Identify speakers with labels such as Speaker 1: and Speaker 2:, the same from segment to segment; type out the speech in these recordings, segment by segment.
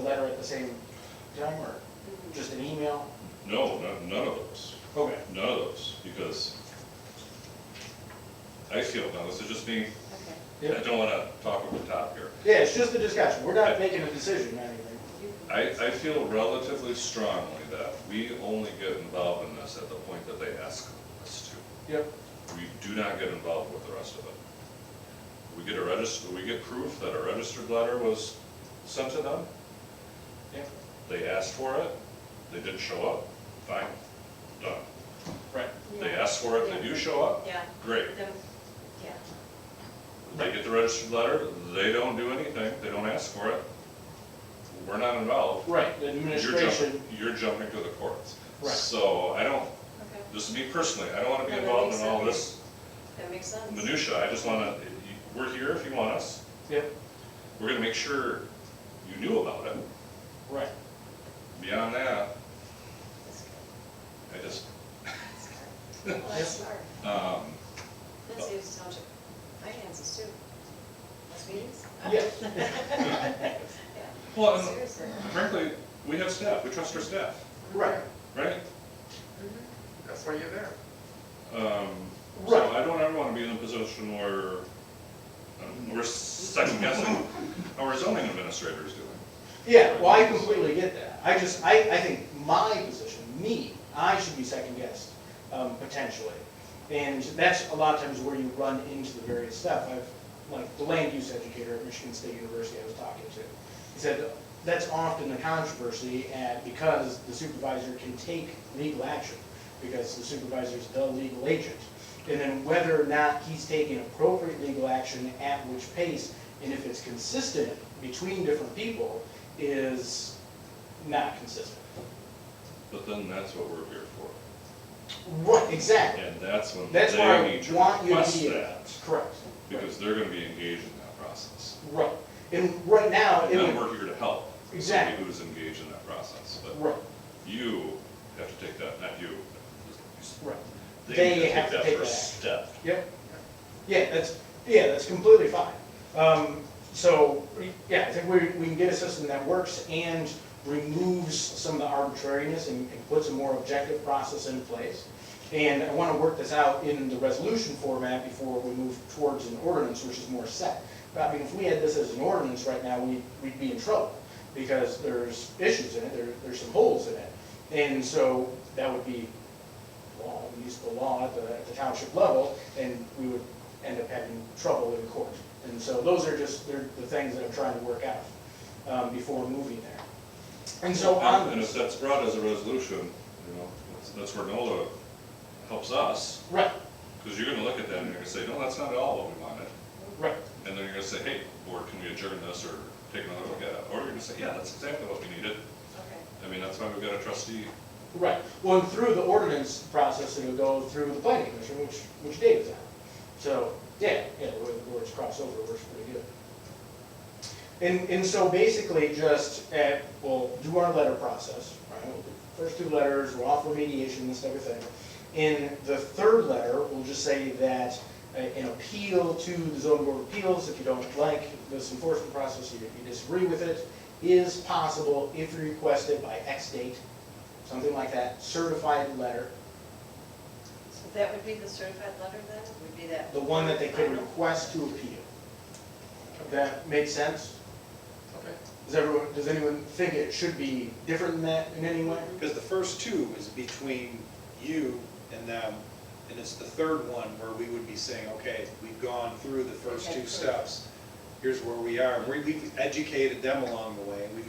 Speaker 1: letter at the same time, or just an email?
Speaker 2: No, not, none of those,
Speaker 1: Okay.
Speaker 2: none of those, because I feel, now this is just me,
Speaker 3: Okay,
Speaker 2: I don't wanna talk over the top here.
Speaker 1: Yeah, it's just a discussion, we're not making a decision or anything.
Speaker 3: you-
Speaker 2: I, I feel relatively strongly that we only get involved in this at the point that they ask us to.
Speaker 1: Yep.
Speaker 2: We do not get involved with the rest of it. We get a register, we get proof that a registered letter was sent to them,
Speaker 1: Yeah,
Speaker 2: they asked for it, they didn't show up, fine, done.
Speaker 1: right.
Speaker 2: They
Speaker 3: Yeah.
Speaker 2: asked for it, they do show up,
Speaker 3: Yeah,
Speaker 2: great.
Speaker 3: then, yeah,
Speaker 2: They get the registered letter, they don't do anything, they don't ask for it, we're not involved.
Speaker 1: Right, the
Speaker 2: You're jumping-
Speaker 1: administration,
Speaker 2: You're jumping to the courts.
Speaker 1: Right.
Speaker 2: So I don't,
Speaker 3: okay,
Speaker 2: this is me personally, I don't wanna be
Speaker 3: No, that
Speaker 2: involved
Speaker 3: makes
Speaker 2: in all
Speaker 3: sense.
Speaker 2: this
Speaker 3: that makes sense.
Speaker 2: minutia, I just wanna, you- we're here if you want us,
Speaker 1: yep,
Speaker 2: we're gonna make sure you knew about it.
Speaker 1: right.
Speaker 2: Beyond that,
Speaker 3: That's good.
Speaker 2: I just,
Speaker 3: That's good. Well, that's smart.
Speaker 2: um,
Speaker 3: That saves township finances too. Those meetings?
Speaker 1: Yes.
Speaker 3: Yeah,
Speaker 2: well,
Speaker 1: um,
Speaker 2: and
Speaker 3: seriously.
Speaker 2: frankly, we have staff, we trust our staff,
Speaker 1: Right.
Speaker 2: right?
Speaker 3: Mhm.
Speaker 4: That's why you're there.
Speaker 2: Um,
Speaker 1: Right.
Speaker 2: So I don't ever want to be in a position where um, we're second guessing how our zoning administrator is doing.
Speaker 1: Yeah, well, I completely get that. I just, I, I think my position, me, I should be second guessed, um, potentially. And that's a lot of times where you run into the various stuff. I've, like, the land use educator at Michigan State University I was talking to, he said, that's often the controversy at, because the supervisor can take legal action, because the supervisor's the legal agent. And then whether or not he's taking appropriate legal action at which pace, and if it's consistent between different people, is not consistent.
Speaker 2: But then that's what we're here for.
Speaker 1: Right, exactly.
Speaker 2: And that's when
Speaker 1: That's why I
Speaker 2: they need to
Speaker 1: want you to
Speaker 2: request
Speaker 1: be-
Speaker 2: that,
Speaker 1: Correct.
Speaker 2: because they're going to be engaged in that process.
Speaker 1: Right. And right now, Uh, it
Speaker 2: And then
Speaker 1: would,
Speaker 2: we're here to help. somebody
Speaker 1: Exactly.
Speaker 2: Who's engaged in that process, but
Speaker 1: right,
Speaker 2: you have to take that, not you.
Speaker 1: right.
Speaker 2: They need
Speaker 1: They
Speaker 2: to
Speaker 1: have
Speaker 2: take
Speaker 1: to
Speaker 2: that
Speaker 1: take that
Speaker 2: first step.
Speaker 1: Yep. Yeah, that's, yeah, that's completely fine. Um, so, yeah, I think we, we can get a system that works and removes some of the arbitrariness and, and puts a more objective process in place. And I wanna work this out in the resolution format before we move towards an ordinance, which is more set. But I mean, if we had this as an ordinance right now, we, we'd be in trouble, because there's issues in it, there, there's some holes in it. And so, that would be law, municipal law at the, at the township level, and we would end up having trouble in court. And so those are just, they're the things that I'm trying to work out, um, before moving there. And so
Speaker 2: And
Speaker 1: on
Speaker 2: and
Speaker 1: this,
Speaker 2: if that's brought as a resolution, you know, that's- that's where NOLA helps us.
Speaker 1: right,
Speaker 2: Because you're gonna look at that and you're gonna say, no, that's not at all what we wanted.
Speaker 1: right,
Speaker 2: And then you're gonna say, hey, board, can we adjourn this or take another look at it? Or you're gonna say, yeah, that's exactly what we needed.
Speaker 3: Okay,
Speaker 2: I mean, that's why we've got a trustee.
Speaker 1: right. Well, and through the ordinance process, it'll go through the planning commission, which, which Dave's on. So, yeah, yeah, the way the boards cross over works pretty good. And, and so basically just at, we'll do our letter process, right? We'll do First two letters, we'll offer mediation, this type of thing. In the third letter, we'll just say that uh, an appeal to the zoning board of appeals, if you don't like this enforcement process, you you disagree with it, is possible if requested by X date, something like that, certified letter,
Speaker 3: so that would be the certified letter then, would be that?
Speaker 1: the one that they could
Speaker 3: final?
Speaker 1: request to appeal. That makes sense?
Speaker 4: Okay.
Speaker 1: Does everyone, does anyone think it should be different than that in any way?
Speaker 5: Because the first two is between you and them, and it's the third one where we would be saying, okay, we've gone through the first
Speaker 3: Okay,
Speaker 5: two
Speaker 3: cool.
Speaker 5: steps. Here's where we are. We- We've educated them along the way, we've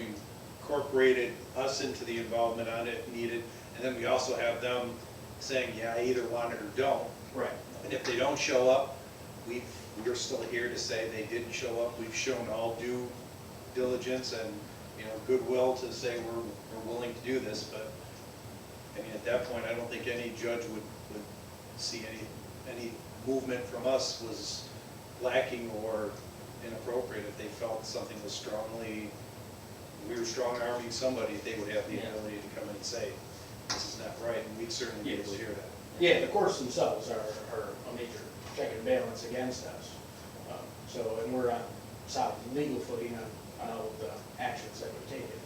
Speaker 5: incorporated us into the involvement on it needed, and then we also have them saying, yeah, I either want it or don't.
Speaker 1: Right.
Speaker 5: And if they don't show up, we've, we're still here to say they didn't show up. We've shown all due diligence and, you know, goodwill to say we're, we're willing to do this, but, I mean, at that point, I don't think any judge would, would see any, any movement from us was lacking or inappropriate. If they felt something was strongly, we were strong arming somebody, they would have the
Speaker 1: Yeah.
Speaker 5: ability to come in and say, this is not right, and we'd certainly be able to
Speaker 1: Yes.
Speaker 5: hear that.
Speaker 1: Yeah, the courts themselves are, are a major check and balance against us. Um, So, and we're on solid legal footing on, on all of the actions that we've taken.